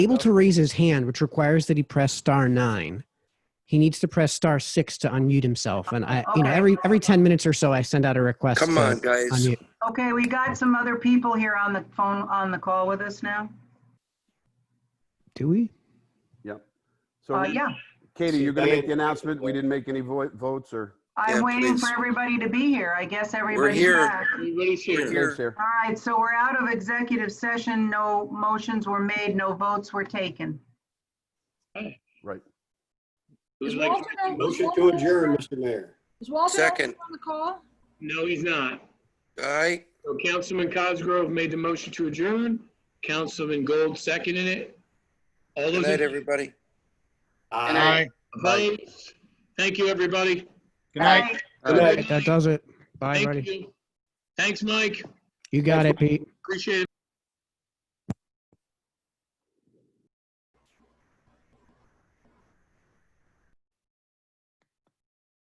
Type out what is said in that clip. able to raise his hand, which requires that he press star nine. He needs to press star six to unmute himself. And I, you know, every every ten minutes or so, I send out a request. Come to on, guys. unmute. Okay, we got some other people here on the phone, on the call with us now. Do we? Yep. So Uh, yeah, Katie, you're going I to mean- make the announcement? We didn't make any vo- votes or? I'm Yeah, waiting for please. everybody to be here. I guess everybody's here. back. Everybody's here. Thanks, Sarah. All right, so we're out of executive session. No motions were made, no votes were taken. Who's Is like- Walter on- Motion to adjourn, Mr. Mayor. Is Walter also Second. on the call? No, he's not. All right, So Councilman Cosgrove made the motion to adjourn. Councilman Gold seconded it. All good those night, in- everybody. Aye. opposed? Thank you, everybody. Good night. Good uh, night. That does it. Bye, Thank buddy. you. Thanks, Mike. You got it, Pete. Appreciate it.